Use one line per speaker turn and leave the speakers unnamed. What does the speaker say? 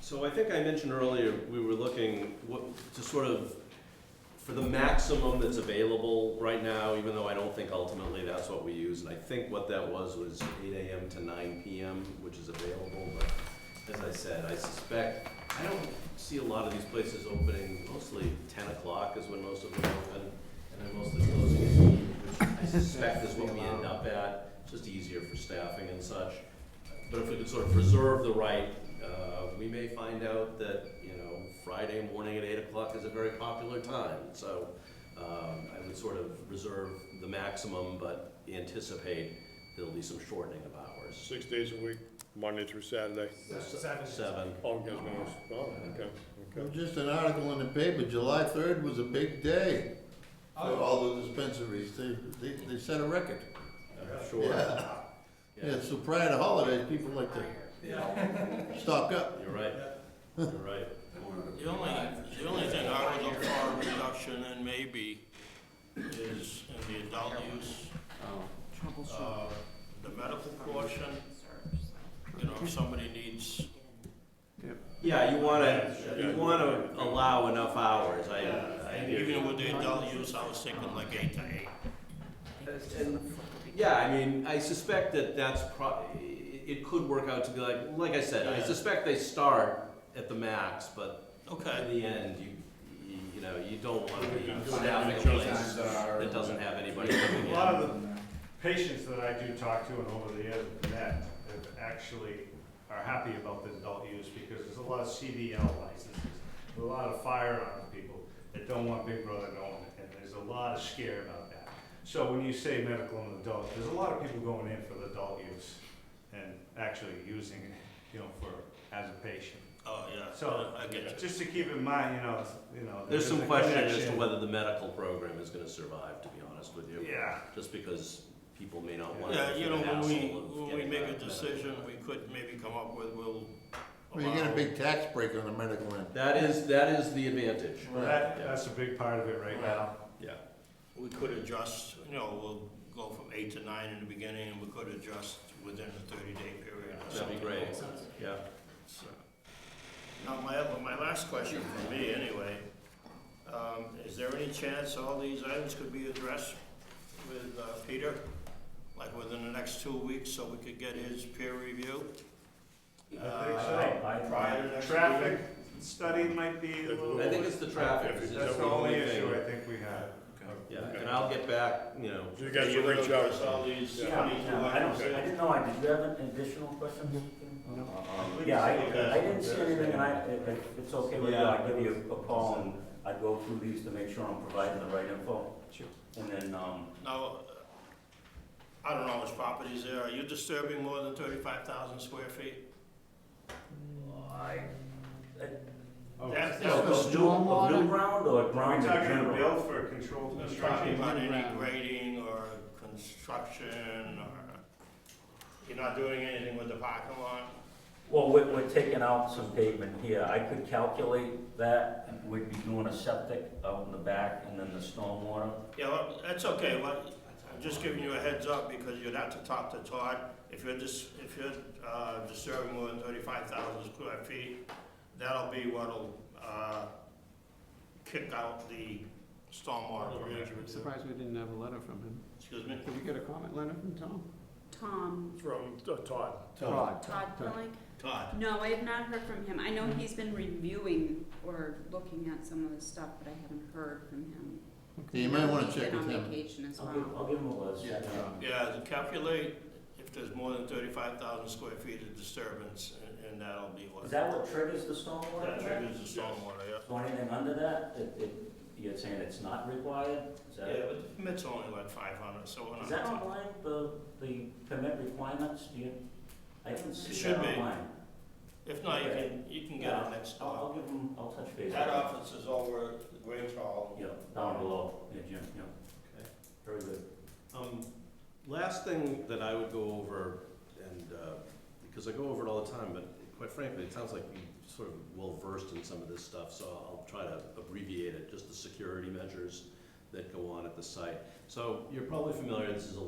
So I think I mentioned earlier, we were looking what, to sort of, for the maximum that's available right now, even though I don't think ultimately that's what we used. I think what that was was eight AM to nine PM, which is available, but as I said, I suspect, I don't see a lot of these places opening, mostly ten o'clock is when most of them open, and then mostly closing at eight, which I suspect is what we end up at, just easier for staffing and such. But if we could sort of preserve the right, uh, we may find out that, you know, Friday morning at eight o'clock is a very popular time. So um, I would sort of reserve the maximum, but anticipate there'll be some shortening of hours.
Six days a week, Monday through Saturday.
Seven.
Seven.
All guys knows. Oh, okay,
There
okay.
was Just an article in the paper, July third was a big day for
Oh,
all the dispensaries, they, they, they set a record.
I'm Sure.
Yeah, yeah, so prior to holidays, people like to
yeah.
stock up.
You're right. You're right.
The only, the only thing I would look for a reduction in maybe is in the adult use, uh, the medical portion. You know, if somebody needs,
Yeah, you want to, you want to allow enough hours. I, I hear you.
even with the adult use, I was thinking like eight to eight.
Yeah, I mean, I suspect that that's pro, it could work out to be like, like I said, I
Yeah.
suspect they start at the max, but
Okay,
In the end, you, you, you know, you don't wanna be
Yeah.
staffing a place that doesn't have anybody coming
A
in.
lot of the patients that I do talk to and over the years that have actually are happy about the adult use because there's a lot of CDL licenses, a lot of firearms people that don't want Big Brother going, and there's a lot of scare about that. So when you say medical and adult, there's a lot of people going in for the adult use and actually using it, you know, for, as a patient.
oh, yeah,
So,
I get you.
just to keep in mind, you know, it's- you know.
There's some
a
question as to
connection.
whether the medical program is gonna survive, to be honest with you.
Yeah.
Just because people may not want to.
Yeah, you know, when we, when we make a decision, we could maybe come up with, we'll
Well, you get a
allow-
big tax break on the medical end.
That is, that is the advantage.
Well, that, that's a big part of it right now.
Yeah.
We could adjust, you know, we'll go from eight to nine in the beginning, and we could adjust within the thirty-day period or
That'd
something.
be great, yeah.
So, Now, my, other- my last question for me, anyway, um, is there any chance all these items could be addressed with, uh, Peter? Like within the next two weeks, so we could get his peer review?
I think
Uh, Prior to
so.
next
Traffic
meeting?
study might be a little.
I think it's the traffic.
If it's-
That's
That's
the only issue I think we have.
Yeah, and I'll get back, you know,
You guys will reach
Address
out.
all these
Yeah.
twenty-two
Yeah, I don't,
items?
see- I didn't know, I, did you have an additional question?
We
Yeah, I,
can see that.
I didn't see anything, and I, if if it's okay with you, I'll give you a call, and I'd go through these to make sure I'm providing the right info.
Sure.
And then, um,
Now, uh, I don't know which properties there, are you disturbing more than thirty-five thousand square feet?
I,
Oh,
That's-
so
that's-
a new, a new ground or
Are
ground
we
in
talking a
general?
bill for controlled
I'm talking
construction?
about any grading or construction or, you're not doing anything with the parking lot?
Well, we're, we're taking out some pavement here, I could calculate that, and we'd be doing a septic out in the back, and then the stormwater.
Yeah, well, that's okay, well, I'm just giving you a heads up because you'd have to talk to Todd. If you're dis, if you're, uh, disturbing more than thirty-five thousand square feet, that'll be what'll, uh, kick out the stormwater permit.
Surprised we didn't have a letter from him.
Excuse me?
Did we get a comment letter from Tom?
Tom,
From uh, Todd.
Todd.
Todd Pilling?
Todd?
No, I have not heard from him. I know he's been reviewing or looking at some of the stuff, but I haven't heard from him.
Yeah, You might wanna
He's
check
been
with
on
him.
vacation as
I'll give,
well.
I'll give them a list.
Yeah.
Yeah, to calculate if there's more than thirty-five thousand square feet of disturbance, and, and that'll be what.
Is that what triggers the stormwater?
That
permit?
triggers the stormwater, yeah.
So anything under that, it, it, you're saying it's not required? Is
Yeah,
that,
but the permit's only like five hundred, so we're not.
is that online, the, the permit requirements, do you? I haven't
It
seen
should
that
be.
online.
If not, you can, you can get it next
I'll,
door.
I'll give them, I'll touch base.
That uh, office is over at the Grange Hall.
Yeah, down below, yeah, Jim, yeah.
Okay.
Very good.
Um, last thing that I would go over, and, uh, because I go over it all the time, but quite frankly, it sounds like you're sort of well versed in some of this stuff, so I'll try to abbreviate it, just the security measures that go on at the site. So you're probably familiar, this is a